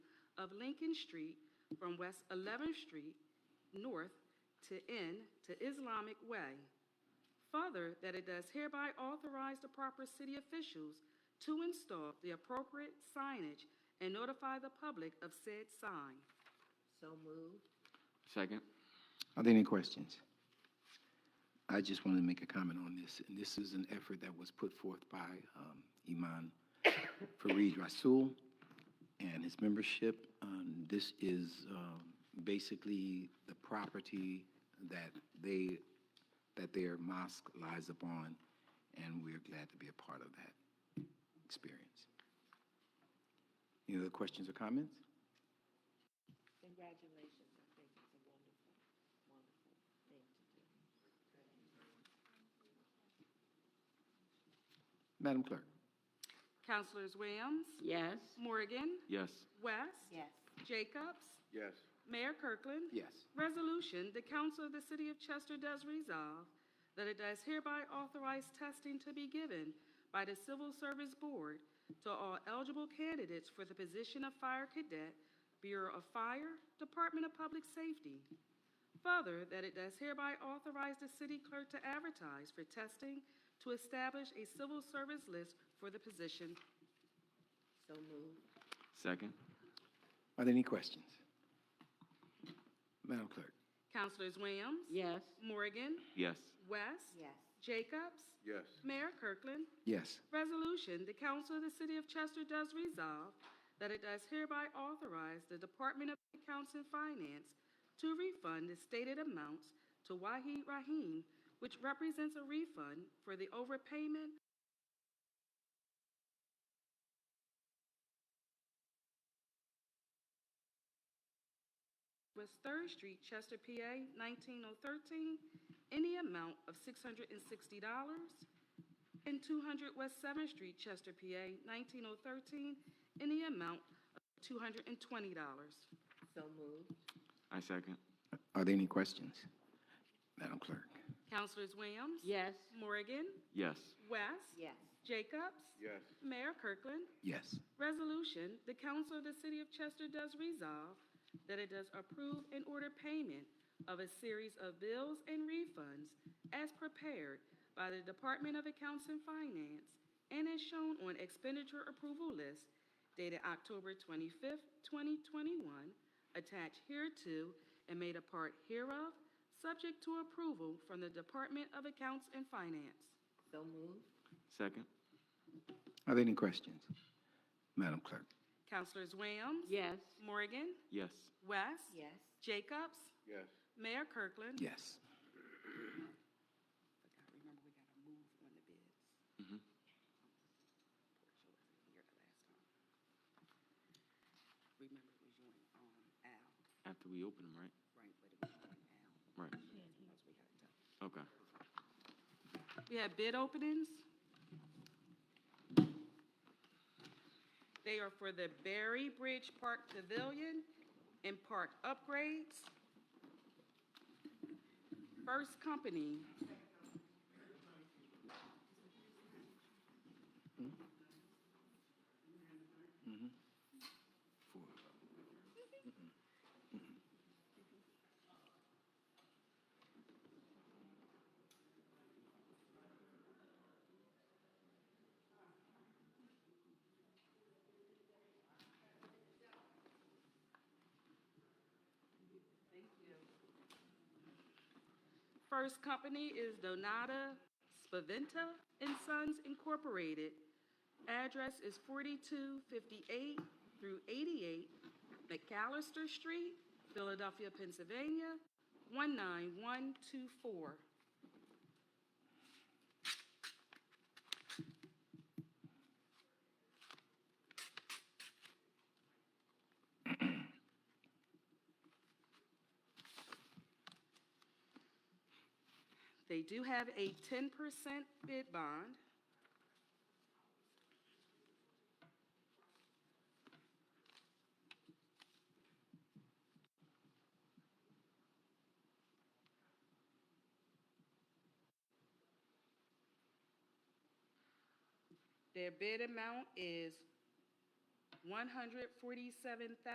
of Lincoln Street from West 11th Street North to end to Islamic Way. Further, that it does hereby authorize the proper city officials to install the appropriate signage and notify the public of said sign. So moved. Second. Are there any questions? I just wanted to make a comment on this, and this is an effort that was put forth by um, Iman Fareed Rasul and his membership. Um, This is um, basically the property that they, that their mosque lies upon, and we're glad to be a part of that experience. Any other questions or comments? Congratulations, I think it's a wonderful, wonderful thing to do. Madam Clerk? Councilors Williams, Yes. Morgan, Yes. West, Yes. Jacobs, Yes. Mayor Kirkland. Yes. Resolution, the Council of the City of Chester does resolve that it does hereby authorize testing to be given by the Civil Service Board to all eligible candidates for the position of Fire Cadet, Bureau of Fire, Department of Public Safety. Further, that it does hereby authorize the city clerk to advertise for testing to establish a civil service list for the position. So moved. Second. Are there any questions? Madam Clerk? Councilors Williams? Yes. Morgan? Yes. West? Yes. Jacobs? Yes. Mayor Kirkland? Yes. Resolution, the Council of the City of Chester does resolve that it does hereby authorize the Department of Accounts and Finance to refund the stated amounts to Wahid Rahim, which represents a refund for the overpayment West Third Street, Chester, PA, 19013, in the amount of $660 and 200 West 7th Street, Chester, PA, 19013, in the amount of $220. So moved. I second. Are there any questions? Madam Clerk? Councilors Williams? Yes. Morgan? Yes. West? Yes. Jacobs? Yes. Mayor Kirkland? Yes. Resolution, the Council of the City of Chester does resolve that it does approve and order payment of a series of bills and refunds as prepared by the Department of Accounts and Finance and as shown on expenditure approval list dated October twenty-fifth, twenty twenty-one, attached hereto and made a part hereof, subject to approval from the Department of Accounts and Finance. So moved. Second. Are there any questions? Madam Clerk? Councilors Williams? Yes. Morgan? Yes. West? Yes. Jacobs? Yes. Mayor Kirkland? Yes. I remember we got to move on the bids. Mhm. Sure wasn't here the last time. Remember it was you and, um, Al, After we open them, right? right, but it was you and Al. Right. That's what we had it done. Okay. We had bid openings. They are for the Berry Bridge Park Pavilion and park upgrades. First company. First company is Donata Spaventa and Sons Incorporated. Address is 4258 through 88 McAllister Street, Philadelphia, Pennsylvania, 19124. They do have a 10% bid bond. Their bid amount is 147,000.